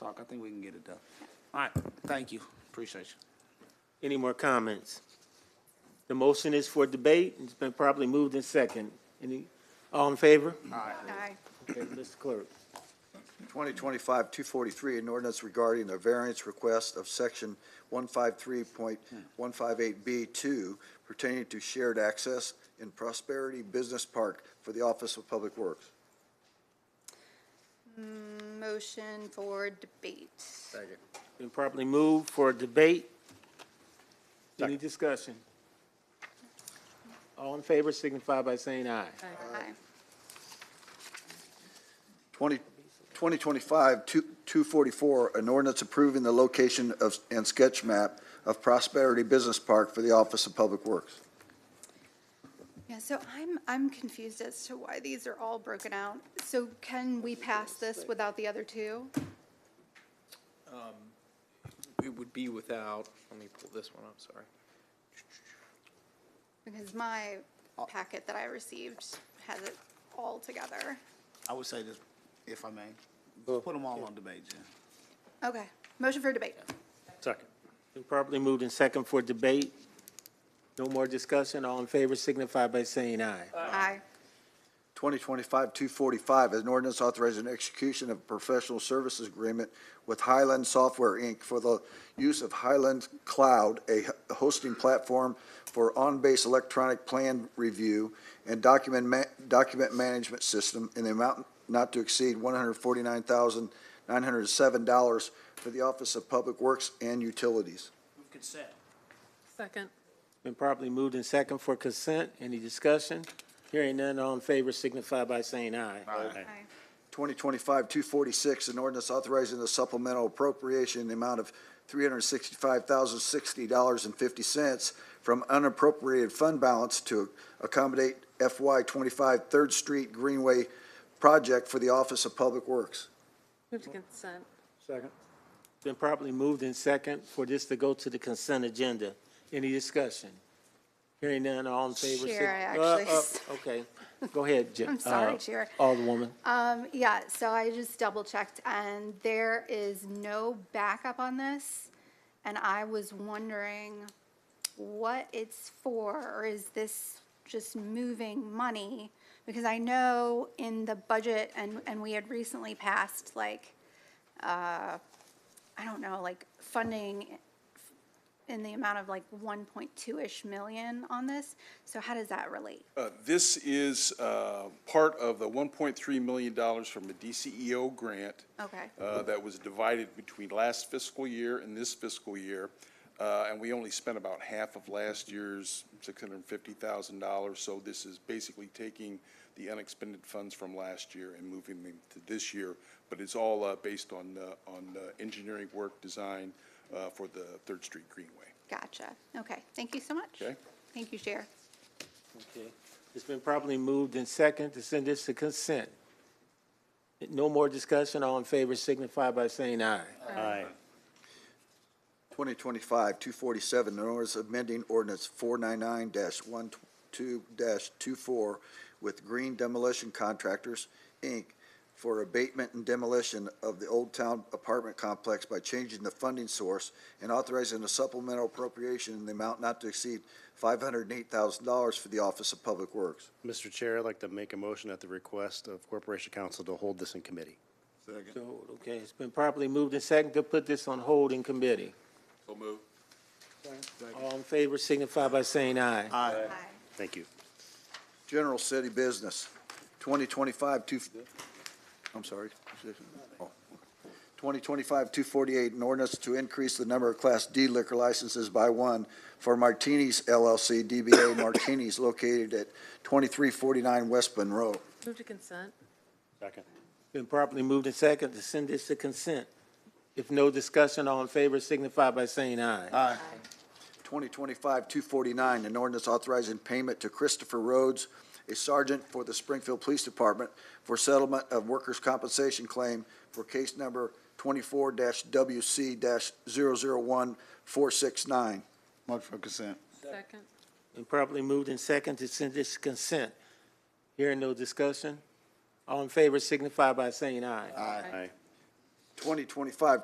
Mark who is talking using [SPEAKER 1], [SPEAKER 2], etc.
[SPEAKER 1] o'clock. I think we can get it done. All right, thank you. Appreciate you.
[SPEAKER 2] Any more comments? The motion is for debate, and it's been properly moved in second. Any, all in favor?
[SPEAKER 3] Aye.
[SPEAKER 2] Okay, Mr. Clerk.
[SPEAKER 4] 2025-243, an ordinance regarding the variance request of Section 153.158B2 pertaining to shared access in Prosperity Business Park for the Office of Public Works.
[SPEAKER 3] Motion for debate.
[SPEAKER 4] Second.
[SPEAKER 2] Been properly moved for debate. Any discussion? All in favor signify by saying aye.
[SPEAKER 3] Aye.
[SPEAKER 4] 2025-244, an ordinance approving the location of, and sketch map of Prosperity Business Park for the Office of Public Works.
[SPEAKER 3] Yeah, so I'm, I'm confused as to why these are all broken out. So can we pass this without the other two?
[SPEAKER 5] It would be without, let me pull this one up, sorry.
[SPEAKER 3] Because my packet that I received has it all together.
[SPEAKER 1] I would say this, if I may, put them all on debate, Jen.
[SPEAKER 3] Okay, motion for debate.
[SPEAKER 2] Second. Been properly moved in second for debate. No more discussion. All in favor signify by saying aye.
[SPEAKER 3] Aye.
[SPEAKER 4] 2025-245, an ordinance authorizing execution of a professional services agreement with Highland Software, Inc. for the use of Highland Cloud, a hosting platform for on-base electronic plan review and document, ma- document management system in the amount not to exceed $149,907 for the Office of Public Works and Utilities.
[SPEAKER 1] Move consent.
[SPEAKER 6] Second.
[SPEAKER 2] Been properly moved in second for consent. Any discussion? Hearing none, all in favor signify by saying aye. Aye.
[SPEAKER 3] Aye.
[SPEAKER 4] 2025-246, an ordinance authorizing the supplemental appropriation in the amount of $365,060.50 from unappropriated fund balance to accommodate FY 25 Third Street Greenway project for the Office of Public Works.
[SPEAKER 6] Move to consent.
[SPEAKER 2] Been properly moved in second for this to go to the consent agenda. Any discussion? Hearing none, all in favor? sig-
[SPEAKER 3] Chair, I
[SPEAKER 2] Uh, uh,
[SPEAKER 3] actually-
[SPEAKER 2] Okay, go ahead. Ja-
[SPEAKER 3] I'm sorry,
[SPEAKER 2] uh,
[SPEAKER 3] Chair.
[SPEAKER 2] Alderwoman.
[SPEAKER 3] Um, yeah, so I just double checked and there is no backup on this. And I was wondering what it's for, or is this just moving money? Because I know in the budget and, and we had recently passed like, uh, I don't know, like funding in the amount of like 1.2-ish million on this. So how does that relate?
[SPEAKER 7] Uh, This is uh, part of the $1.3 million from a DCEO grant.
[SPEAKER 3] Okay.
[SPEAKER 7] uh, That was divided between last fiscal year and this fiscal year. uh, And we only spent about half of last year's $650,000. So this is basically taking the unexpended funds from last year and moving them to this year. But it's all uh, based on, uh, on uh, engineering work design uh, for the Third Street Greenway.
[SPEAKER 3] Gotcha. Okay, thank you so much.
[SPEAKER 7] Okay.
[SPEAKER 3] Thank you, Chair.
[SPEAKER 2] Okay. It's been properly moved in second to send this to consent. No more discussion, all in favor signify by saying aye. Aye.
[SPEAKER 4] 2025-247, an ordinance amending ordinance 499-12-24 with Green Demolition Contractors, Inc., for abatement and demolition of the Old Town Apartment Complex by changing the funding source and authorizing a supplemental appropriation in the amount not to exceed $508,000 for the Office of Public Works.
[SPEAKER 8] Mr. Chair, I'd like to make a motion at the request of Corporation Council to hold this in committee.
[SPEAKER 2] So, okay, it's been properly moved in second to put this on hold in committee. So moved. All in favor signify by saying aye.
[SPEAKER 3] Aye.
[SPEAKER 8] Thank you.
[SPEAKER 4] General City Business, 2025-2, I'm sorry. Oh. 2025-248, an ordinance to increase the number of Class D liquor licenses by one for Martinis LLC, DBA Martinis, located at 2349 West Monroe.
[SPEAKER 6] Move to consent.
[SPEAKER 8] Second.
[SPEAKER 2] Been properly moved and second to send this to consent. If no discussion, all in favor signify by saying aye. Aye.
[SPEAKER 4] 2025-249, an ordinance authorizing payment to Christopher Rhodes, a sergeant for the Springfield Police Department, for settlement of workers' compensation claim for case number 24-WC-001469.
[SPEAKER 1] Much for consent.
[SPEAKER 6] Second.
[SPEAKER 2] Been properly moved and second to send this to consent. Hearing no discussion, all in favor signify by saying aye.
[SPEAKER 8] Aye.
[SPEAKER 4] 2025